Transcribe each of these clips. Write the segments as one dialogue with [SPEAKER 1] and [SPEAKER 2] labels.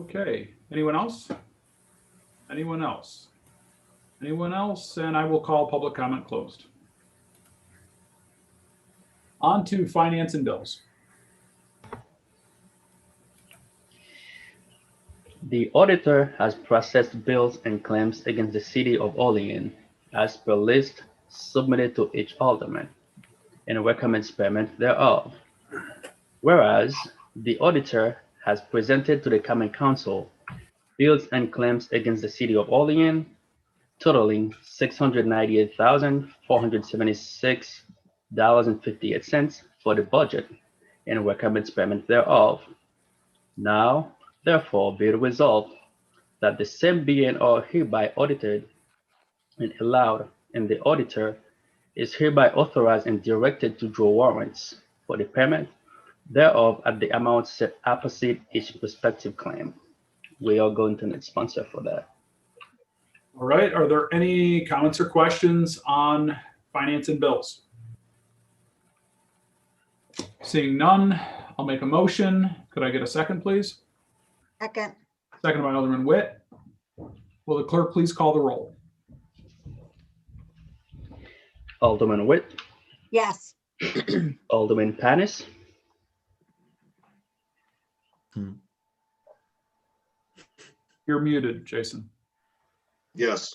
[SPEAKER 1] Okay, anyone else? Anyone else? Anyone else? And I will call public comment closed. On to finance and bills.
[SPEAKER 2] The auditor has processed bills and claims against the city of Olean as per list submitted to each alderman and recommends payment thereof. Whereas the auditor has presented to the common council bills and claims against the city of Olean totaling six hundred ninety-eight thousand, four hundred seventy-six dollars and fifty-eight cents for the budget and recommends payment thereof. Now, Therefore, be it resolved that the same be and are hereby audited and allowed, and the auditor is hereby authorized and directed to draw warrants for the payment thereof at the amount set opposite each prospective claim. We are going to need sponsor for that.
[SPEAKER 1] All right, are there any comments or questions on finance and bills? Seeing none, I'll make a motion. Could I get a second, please?
[SPEAKER 3] Second,
[SPEAKER 1] Second by Alderman Witt. Will the clerk please call the roll?
[SPEAKER 2] Alderman Witt,
[SPEAKER 3] yes.
[SPEAKER 2] Alderman Panis.
[SPEAKER 1] You're muted, Jason.
[SPEAKER 4] Yes.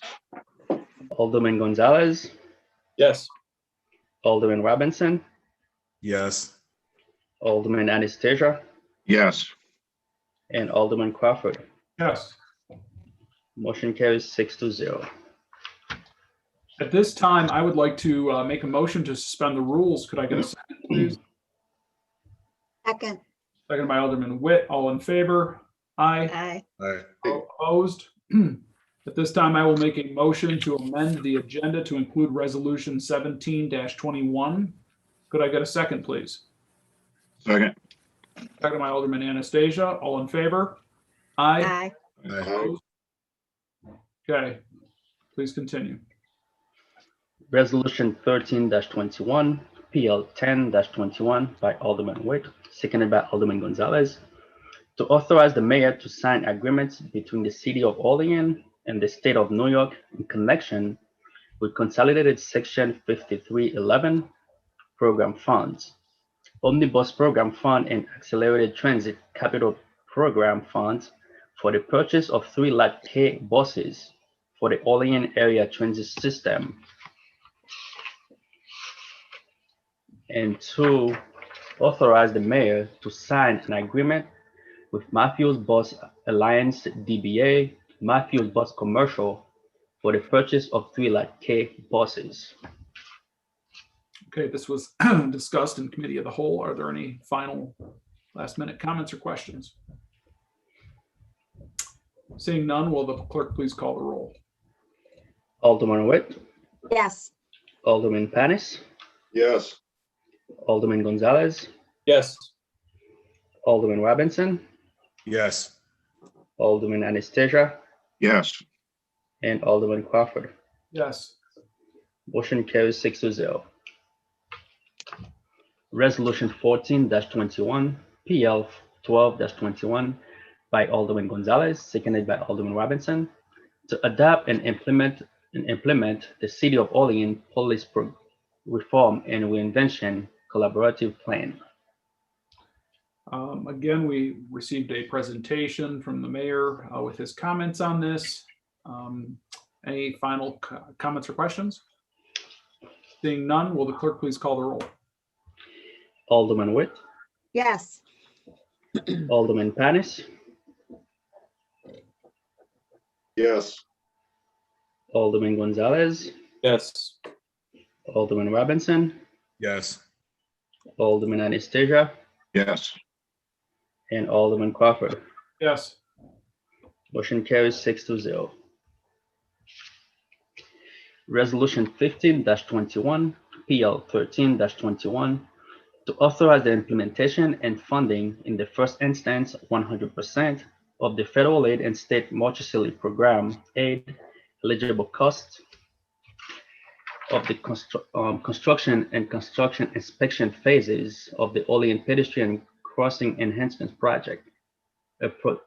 [SPEAKER 2] Alderman Gonzalez,
[SPEAKER 5] Yes.
[SPEAKER 2] Alderman Robinson,
[SPEAKER 6] Yes.
[SPEAKER 2] Alderman Anastasia,
[SPEAKER 4] Yes.
[SPEAKER 2] and Alderman Crawford.
[SPEAKER 1] Yes.
[SPEAKER 2] Motion carries six to zero.
[SPEAKER 1] At this time, I would like to uh, make a motion to suspend the rules. Could I get a second, please?
[SPEAKER 3] Second,
[SPEAKER 1] Second by Alderman Witt. All in favor? Aye.
[SPEAKER 3] aye.
[SPEAKER 6] Aye.
[SPEAKER 1] All Opposed? At this time, I will make a motion to amend the agenda to include Resolution seventeen twenty-one. Could I get a second, please?
[SPEAKER 4] Second.
[SPEAKER 1] Second by Alderman Anastasia. All in favor? Aye.
[SPEAKER 3] Aye.
[SPEAKER 6] Aye.
[SPEAKER 1] Okay, please continue.
[SPEAKER 2] Resolution thirteen twenty-one, PL ten twenty-one by Alderman Witt, seconded by Alderman Gonzalez, to authorize the mayor to sign agreements between the city of Olean and the state of New York in connection with consolidated section fifty-three eleven program funds, omnibus program fund and accelerated transit capital program funds for the purchase of three light K buses for the Olean area transit system And two, authorize the mayor to sign an agreement with Matthews Bus Alliance DBA, Matthews Bus Commercial for the purchase of three light K buses.
[SPEAKER 1] Okay, this was discussed in committee of the whole. Are there any final last minute comments or questions? Seeing none, will the clerk please call the roll?
[SPEAKER 2] Alderman Witt,
[SPEAKER 3] Yes,
[SPEAKER 2] Alderman Panis,
[SPEAKER 4] Yes.
[SPEAKER 2] Alderman Gonzalez,
[SPEAKER 5] Yes.
[SPEAKER 2] Alderman Robinson,
[SPEAKER 6] Yes.
[SPEAKER 2] Alderman Anastasia,
[SPEAKER 4] Yes.
[SPEAKER 2] and Alderman Crawford.
[SPEAKER 1] Yes.
[SPEAKER 2] Motion carries six to zero. Resolution fourteen twenty-one, PL twelve twenty-one by Alderman Gonzalez, seconded by Alderman Robinson, to adapt and implement and implement the City of Olean Police Pro- Reform and Reinvention Collaborative Plan.
[SPEAKER 1] Um, Again, we received a presentation from the mayor uh, with his comments on this. Um, Any final co- comments or questions? Seeing none, will the clerk please call the roll?
[SPEAKER 2] Alderman Witt,
[SPEAKER 3] yes.
[SPEAKER 2] Alderman Panis,
[SPEAKER 4] Yes.
[SPEAKER 2] Alderman Gonzalez,
[SPEAKER 5] Yes.
[SPEAKER 2] Alderman Robinson,
[SPEAKER 6] Yes.
[SPEAKER 2] Alderman Anastasia,
[SPEAKER 4] Yes.
[SPEAKER 2] and Alderman Crawford.
[SPEAKER 1] Yes.
[SPEAKER 2] Motion carries six to zero. Resolution fifteen twenty-one, PL thirteen twenty-one, to authorize the implementation and funding in the first instance, one hundred percent of the federal aid and state Marchicelli program aid eligible costs of the constru- um, construction and construction inspection phases of the Olean pedestrian crossing enhancement project. A pro-